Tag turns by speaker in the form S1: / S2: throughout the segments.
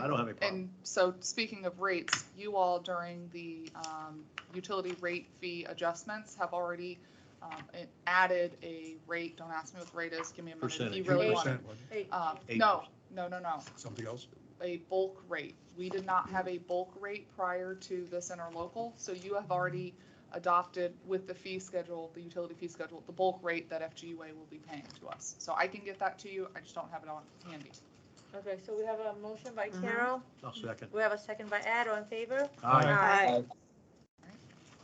S1: I don't have a problem.
S2: And so, speaking of rates, you all during the um, utility rate fee adjustments have already um, it added a rate, don't ask me what the rate is, give me a minute. if you
S1: Percentage,
S2: really want it.
S3: 8%, wasn't
S4: Um,
S2: Uh,
S1: Eight
S2: No, no, no, no,
S3: it? Something else?
S2: a bulk rate. We did not have a bulk rate prior to this interlocal, so you have already adopted with the fee schedule, the utility fee schedule, the bulk rate that FGUA will be paying to us. So I can get that to you, I just don't have it on handy.
S4: Okay, so we have a motion by
S5: Mhm.
S4: Carol,
S1: I'll second.
S4: we have a second by Ed, all in favor?
S3: Aye.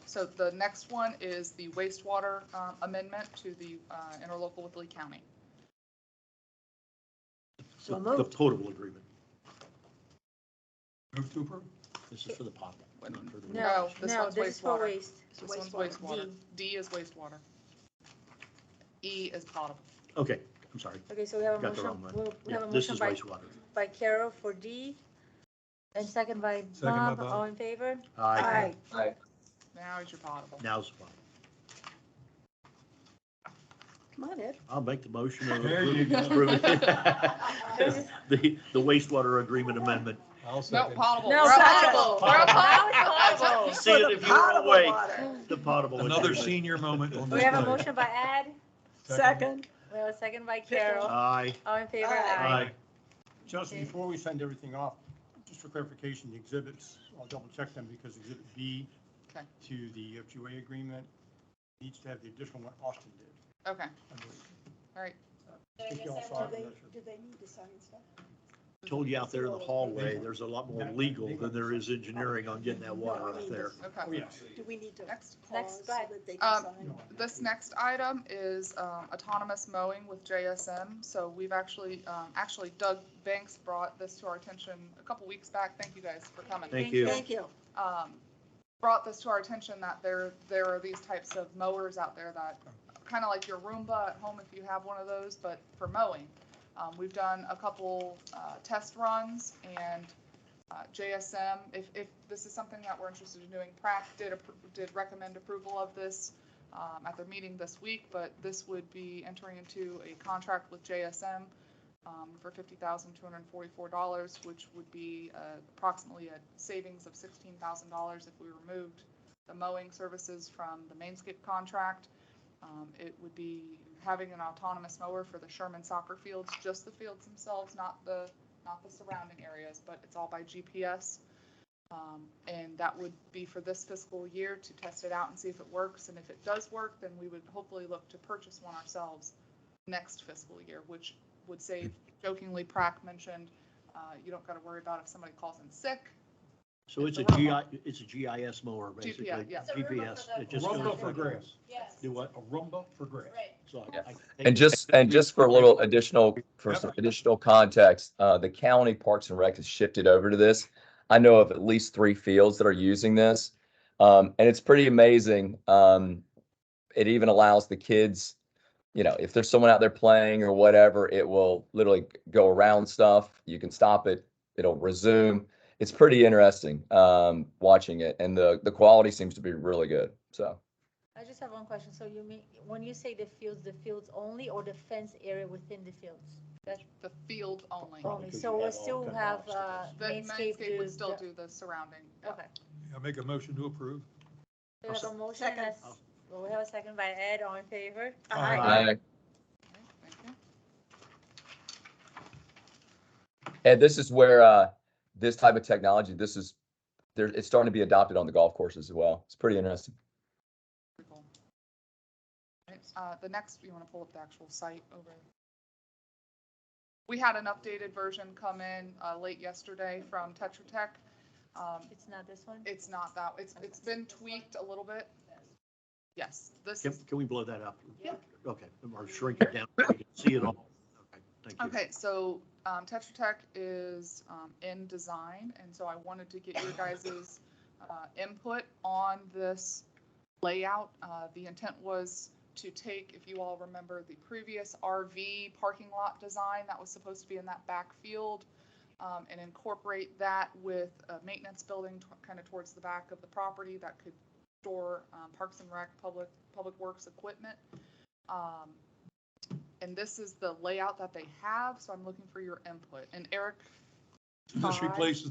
S2: So the next one is the wastewater uh, amendment to the uh, interlocal with Lee County.
S5: So
S1: The- The
S5: moved.
S1: potable agreement.
S3: Move to approve?
S1: This is for the potable. not for the-
S4: No,
S2: this
S4: no,
S2: one's
S4: this is for
S2: wastewater.
S4: waste.
S2: This one's
S5: Wastewater.
S2: wastewater. D is wastewater. E is potable.
S1: Okay, I'm sorry.
S4: Okay, so we have a
S1: Got the
S4: motion,
S1: wrong one.
S4: we- we
S1: Yeah,
S4: have a
S1: this
S4: motion
S1: is
S4: by,
S1: wastewater.
S4: by Carol for D, and second by
S3: Second by
S4: Bob,
S3: Bob.
S4: all in favor?
S1: Aye.
S2: Now is your potable.
S1: Now's the problem.
S5: Come on, Ed.
S1: I'll make the motion. of
S3: There you go.
S1: approving- The, the wastewater agreement amendment.
S3: I'll
S2: No,
S3: second.
S2: potable.
S4: No,
S2: We're on
S4: potable.
S2: We're on
S4: Now it's
S2: potable.
S4: potable.
S1: See it if you were
S5: Potable
S1: awake.
S5: water.
S1: The potable.
S3: Another
S1: agreement.
S3: senior moment on
S4: We
S3: this
S4: have a
S3: night.
S4: motion by Ed,
S5: Second.
S4: we have a second by Carol,
S1: Aye.
S4: all in favor?
S5: Aye.
S1: Aye.
S6: Justin, before we send everything off, just for clarification, the exhibits, I'll double check them because exhibit B
S2: Okay.
S6: to the FGA agreement needs to have the additional one Austin did.
S2: Okay,
S6: I believe.
S2: all right.
S6: I think y'all saw it, I'm not sure.
S5: Do they need to sign stuff?
S1: Told you out there in the hallway, there's a lot more legal than there is engineering on getting that water out there.
S6: Oh,
S2: Okay.
S6: yes.
S5: Do we need to
S2: Next.
S5: pause
S4: Next,
S5: so
S4: go ahead.
S5: that
S2: Um,
S5: they can sign?
S6: No, I-
S2: This next item is um, autonomous mowing with JSM. So we've actually, um, actually Doug Banks brought this to our attention a couple weeks back. Thank you guys for coming.
S1: Thank you.
S5: Thank you.
S2: um, brought this to our attention that there, there are these types of mowers out there that, kind of like your Roomba at home if you have one of those, but for mowing. Um, we've done a couple, uh, test runs and, uh, JSM, if, if this is something that we're interested in doing, Prac did, appro- did recommend approval of this, um, at their meeting this week, but this would be entering into a contract with JSM, um, for fifty thousand two hundred and forty-four dollars, which would be uh, approximately a savings of sixteen thousand dollars if we removed the mowing services from the mainscape contract. Um, It would be having an autonomous mower for the Sherman soccer fields, just the fields themselves, not the, not the surrounding areas, but it's all by GPS. Um, And that would be for this fiscal year to test it out and see if it works. And if it does work, then we would hopefully look to purchase one ourselves next fiscal year, which would save, jokingly, Prac mentioned, uh, you don't got to worry about if somebody calls in sick.
S1: So it's a GI, it's a GIS mower, basically.
S2: GPS, yeah.
S7: It's a Roomba
S1: GPS.
S7: for the-
S1: It
S3: A
S1: just
S3: rumba
S1: goes
S3: for
S1: like-
S3: grass.
S7: Yes,
S1: Do what?
S3: A rumba for grass.
S7: right.
S1: So I-
S8: Yeah.
S1: I think
S8: And just, and just for a little additional, for some additional context, uh, the county Parks and Rec has shifted over to this. I know of at least three fields that are using this. Um, and it's pretty amazing. Um, it even allows the kids, you know, if there's someone out there playing or whatever, it will literally go around stuff. You can stop it. It'll resume. It's pretty interesting, um, watching it and the, the quality seems to be really good. So
S4: I just have one question, so you mean, when you say the fields, the fields only, or the fence area within the fields?
S2: The field only.
S1: Probably
S4: Only,
S1: could
S4: so
S1: you
S4: we'll
S1: have all
S4: still
S1: kinds of
S4: have, uh,
S1: obstacles.
S2: The
S4: landscape.
S2: landscape would
S4: do
S2: still
S4: the-
S2: do the surrounding.
S4: Okay.
S3: I make a motion to approve.
S4: We have a motion, and a s-
S1: Second.
S4: well, we have a second by Ed, all in favor?
S3: Aye.
S8: I,
S2: Okay, thank you.
S8: And this is where uh, this type of technology, this is, there, it's starting to be adopted on the golf courses as well. It's pretty interesting.
S2: Pretty cool. Uh, the next, you want to pull up the actual site over? We had an updated version come in, uh, late yesterday from Tetra Tech. Um,
S4: It's not this one?
S2: it's not that, it's, it's been tweaked a little bit. Yes, this
S1: Can,
S2: is,
S1: can we blow that up?
S2: Yeah.
S1: Okay, or shrink it down, so we can see it all. Okay, thank you.
S2: okay, so, um, Tetra Tech is, um, in design, and so I wanted to get your guys' uh, input on this layout. Uh, The intent was to take, if you all remember, the previous RV parking lot design that was supposed to be in that backfield um, and incorporate that with a maintenance building kind of towards the back of the property that could store um, Parks and Rec, Public, Public Works equipment. Um, And this is the layout that they have, so I'm looking for your input. And Eric, uh,
S3: This
S4: Five.
S3: replaces